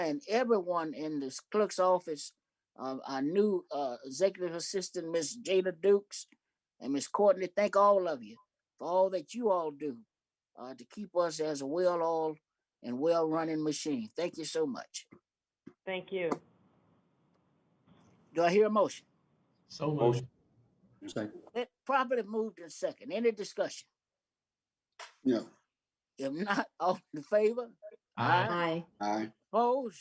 and everyone in this clerk's office, uh, our new uh, executive assistant, Miss Jada Dukes, and Miss Courtney, thank all of you for all that you all do uh, to keep us as a well-oiled and well-running machine. Thank you so much. Thank you. Do I hear a motion? So moved. Motion. Second. It properly moved in second. Any discussion? Yeah. If not, all in favor? Aye. Aye. Aye. Opposed?